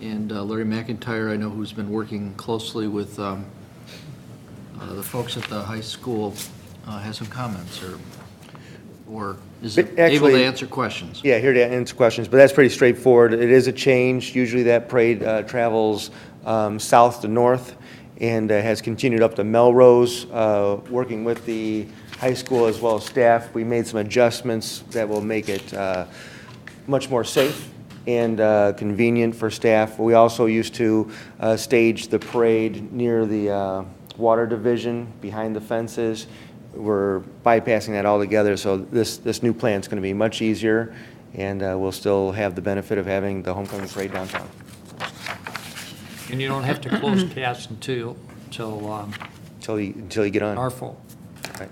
And uh, Larry McIntyre, I know who's been working closely with um, uh, the folks at the high school, uh, has some comments or, or is But able to actually- answer questions. Yeah, here to answer questions, but that's pretty straightforward. It is a change. Usually that parade uh, travels um, south to north and uh, has continued up to Melrose. Uh, Working with the high school as well as staff, we made some adjustments that will make it uh, much more safe and uh, convenient for staff. We also used to uh, stage the parade near the uh, water division, behind the fences. We're bypassing that altogether, so this, this new plan's going to be much easier, and uh, we'll still have the benefit of having the homecoming parade downtown. And you don't have to close CAS until, till um, Until you, until you get on. our fall. Right.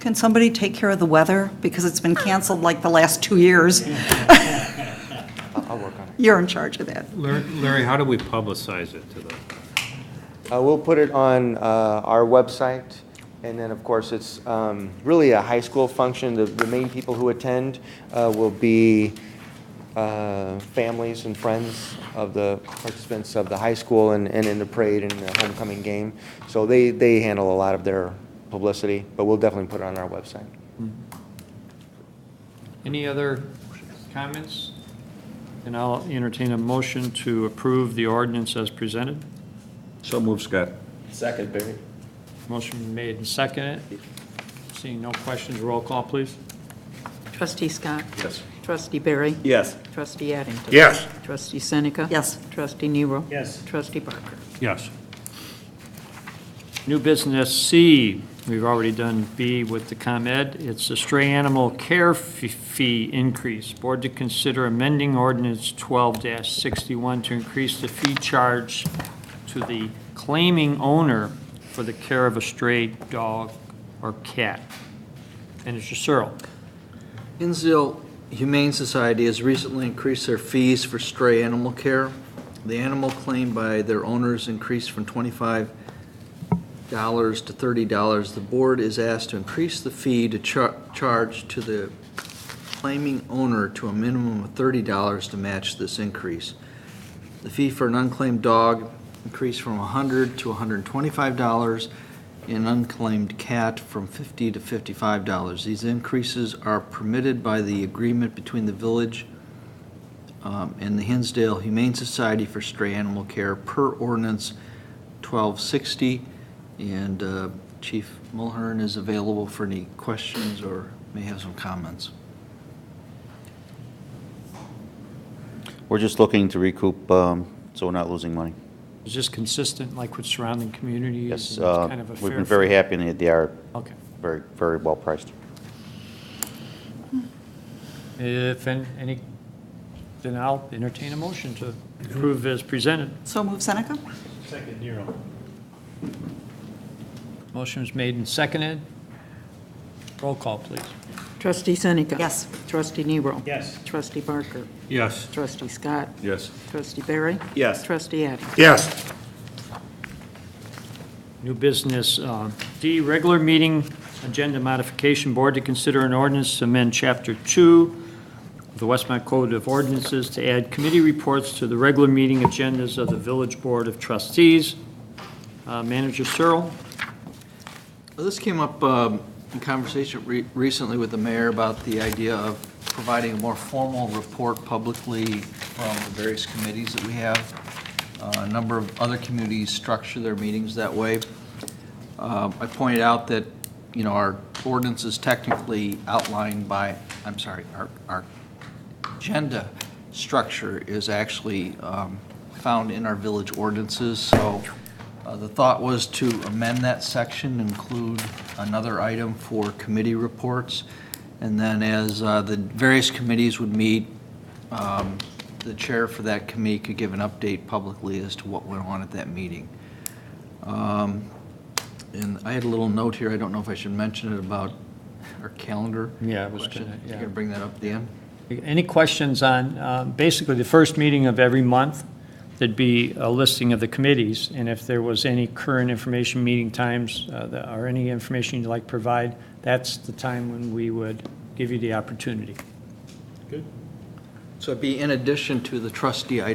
Can somebody take care of the weather? Because it's been canceled like the last two years. I'll I'll work on it. You're in charge of that. Larry- Larry, how do we publicize it to the, Uh, We'll put it on uh, our website, and then, of course, it's um, really a high school function. The- The main people who attend uh, will be uh, families and friends of the participants of the high school and and in the parade and the homecoming game. So they, they handle a lot of their publicity, but we'll definitely put it on our website. Any other comments? And I'll entertain a motion to approve the ordinance as presented. so move, Scott. Second, Barry. Motion made and seconded. Seeing no questions, roll call, please. Trustee Scott. Yes. Trustee Barry. Yes. Trustee Addington. Yes. Trustee Seneca. Yes. Trustee Nero. Yes. Trustee Barker. Yes. New business C, we've already done B with the ComEd. It's the stray animal care f- fee increase. Board to consider amending ordinance 12-61 to increase the fee charge to the claiming owner for the care of a stray dog or cat. And it's your Cyril. Hinsdale Humane Society has recently increased their fees for stray animal care. The animal claim by their owners increased from twenty-five dollars to thirty dollars. The board is asked to increase the fee to char- charge to the claiming owner to a minimum of thirty dollars to match this increase. The fee for an unclaimed dog increased from hundred to hundred and twenty-five dollars an unclaimed cat from $50 to $55. These increases are permitted by the agreement between the village um, and the Hinsdale Humane Society for Stray Animal Care per ordinance 1260. And uh, Chief Mulhern is available for any questions or may have some comments. We're just looking to recoup, um, so we're not losing money. Is this consistent, like with surrounding communities? and Yes, it's uh, kind of a we've fair been very fee? happy, and they are Okay. very, very well priced. If an- any, then I'll entertain a motion to approve as presented. So move Seneca? Second, Nero. Motion was made and seconded. Roll call, please. Trustee Seneca. Yes. Trustee Nero. Yes. Trustee Barker. Yes. Trustee Scott. Yes. Trustee Barry. Yes. Trustee Addington. Yes. New business, uh, D, regular meeting agenda modification board to consider an ordinance to amend Chapter 2 of the Westmont Code of Ordinances to add committee reports to the regular meeting agendas of the Village Board of Trustees. Uh, Manager Searle? Well, This came up um, in conversation re- recently with the mayor about the idea of providing a more formal report publicly from the various committees that we have. Uh, A number of other communities structure their meetings that way. Um, I pointed out that, you know, our ordinance is technically outlined by, I'm sorry, our, our agenda structure is actually um, found in our village ordinances, so uh, the thought was to amend that section, include another item for committee reports, and then as uh, the various committees would meet, um, the chair for that committee could give an update publicly as to what went on at that meeting. Um, And I had a little note here, I don't know if I should mention it, about our calendar. Yeah, I was question. gonna- You yeah. gonna bring that up, Dan? Any questions on, um, basically, the first meeting of every month, there'd be a listing of the committees, and if there was any current information, meeting times, uh, that- or any information you'd like to provide, that's the time when we would give you the opportunity. So it'd be in addition to the trustee